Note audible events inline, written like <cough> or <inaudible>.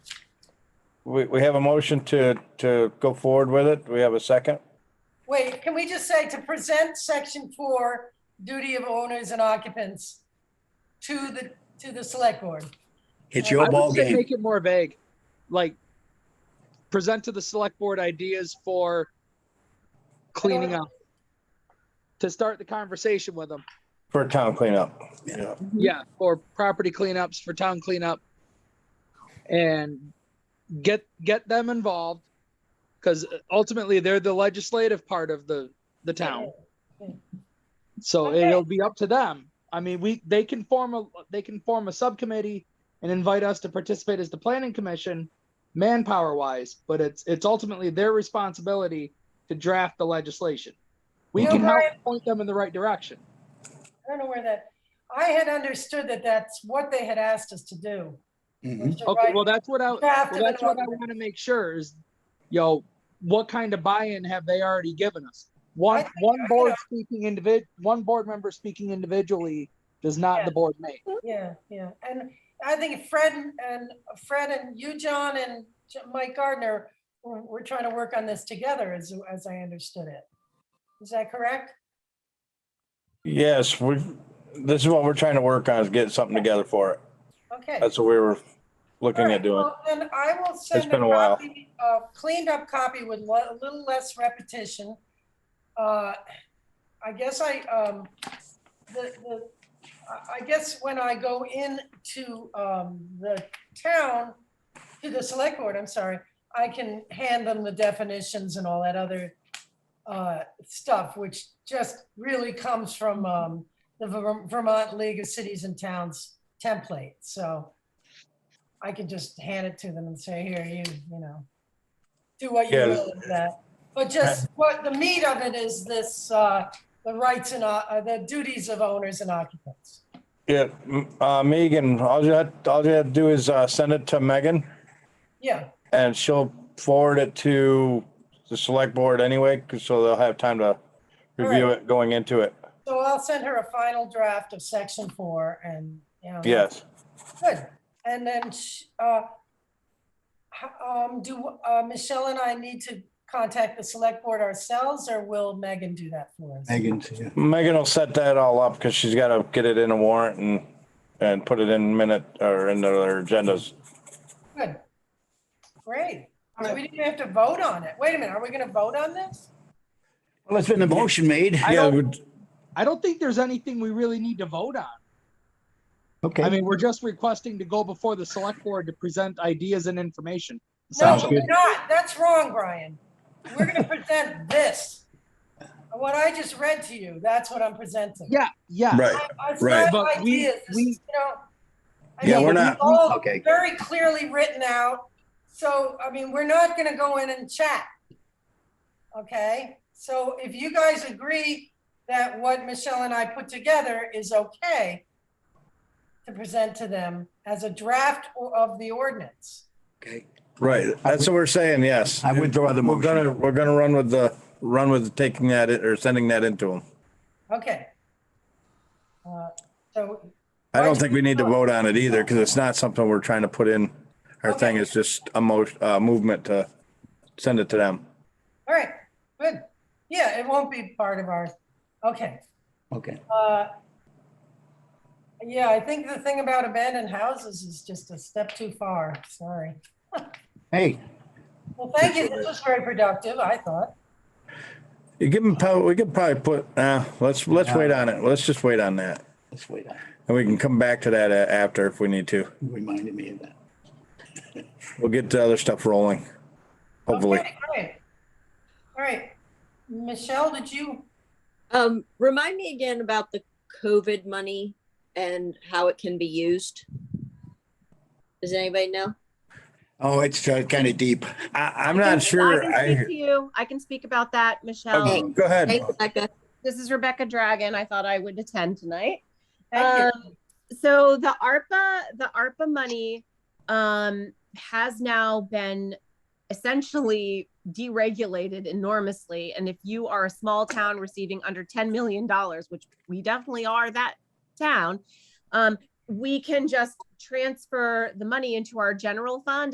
we, we have a motion to, to go forward with it. Do we have a second? Wait, can we just say to present section four, duty of owners and occupants to the, to the select board? It's I your would I ball would say game. make it more vague. Like, present to the select board ideas for cleaning up. To start the conversation with them. For town cleanup. Yeah. Yeah, or property cleanups for town cleanup. And get, get them involved. Cause uh, ultimately they're the legislative part of the, the town. So Okay. it'll be up to them. I mean, we, they can form a, they can form a subcommittee and invite us to participate as the planning commission, manpower wise, but it's, it's ultimately their responsibility to draft the legislation. We You can know, help Brian- point them in the right direction. I don't know where that, I had understood that that's what they had asked us to do. Mhm. was to Okay, write well, that's what I, draft Well, of an that's what I ordinance. want to make sure is, yo, what kind of buy-in have they already given us? One, think- one you board know- speaking individ, one board member speaking individually does not Yeah. the board make. Yeah, yeah, and I think Fred and Fred and you, John, and J- Mike Gardner, we're, we're trying to work on this together, as as I understood it. Is that correct? Yes, we, this is what we're trying to work on is get something together for it. Okay. That's what we were looking All at right, doing. well, Then I will send a been a while. copy, a cleaned up copy with le- a little less repetition. Uh, I guess I, um, the, the, I- I guess when I go in to, um, the town, to the select board, I'm sorry, I can hand them the definitions and all that other, uh, stuff, which just really comes from, um, the Ver- Vermont League of Cities and Towns template, so. I could just hand it to them and say, here, you, you know, do what you Yeah. will with that. But just what the meat of it is this, uh, the rights and, uh, uh, the duties of owners and occupants. Yeah, m- uh, Megan, all you had, all you had to do is, uh, send it to Megan Yeah, and she'll forward it to the select board anyway, 'cause- so they'll have time to review Alright. it going into it. so I'll send her a final draft of section four and, you know. Yes. Good. And then, sh- uh, h- um, do, uh, Michelle and I need to contact the select board ourselves or will Megan do that for us? Megan's, yeah. Megan will set that all up because she's got to get it in a warrant and, and put it in minute or in their agendas. Good. Great. So we didn't even have to vote on it. Wait a minute, are we gonna vote on this? Well, it's been a motion made. I Yeah, don't, I don't think there's anything we really need to vote on. I Okay, mean, we're just requesting to go before the select board to present ideas and information. No, Sounds we're good. not. That's wrong, Brian. We're gonna <laughs> present this. What I just read to you, that's what I'm presenting. Yeah, yeah. I- I- It's not right. But we- ideas, This we- is, you know. I Yeah, mean, we're it's not- all Okay. Very clearly written out. So, I mean, we're not gonna go in and chat. Okay, so if you guys agree that what Michelle and I put together is okay to present to them as a draft o- of the ordinance. okay. Right, that's what we're saying, yes. I withdraw the We're motion. gonna, we're gonna run with the, run with taking that i- or sending that into them. Okay. Uh, So, I don't think we need to vote on it either because it's not something we're trying to put in. Our thing is just a mo, uh, movement to send it to them. all right, good. Yeah, it won't be part of our, okay. Okay. Uh, Yeah, I think the thing about abandoned houses is just a step too far, sorry. Hey, Well, thank you, this was very productive, I thought. You give them, prob- we could probably put, uh, let's, let's wait on it. Let's just wait on that. let's wait. And we can come back to that a- after if we need to. You Reminded me of that. We'll get the other stuff rolling. Hopefully. Okay, great. All right, Michelle, did you, Um, remind me again about the COVID money and how it can be used. Does anybody know? Oh, it's kind of deep. I, I'm not sure. I can I, speak to you. I can speak about that, Michelle. Okay, go ahead. Hey, Becca. This is Rebecca Dragon. I thought I would attend tonight. thank Um, so the ARPA, the ARPA money um, has now been essentially deregulated enormously. And if you are a small town receiving under $10 million, which we definitely are that town, um, we can just transfer the money into our general fund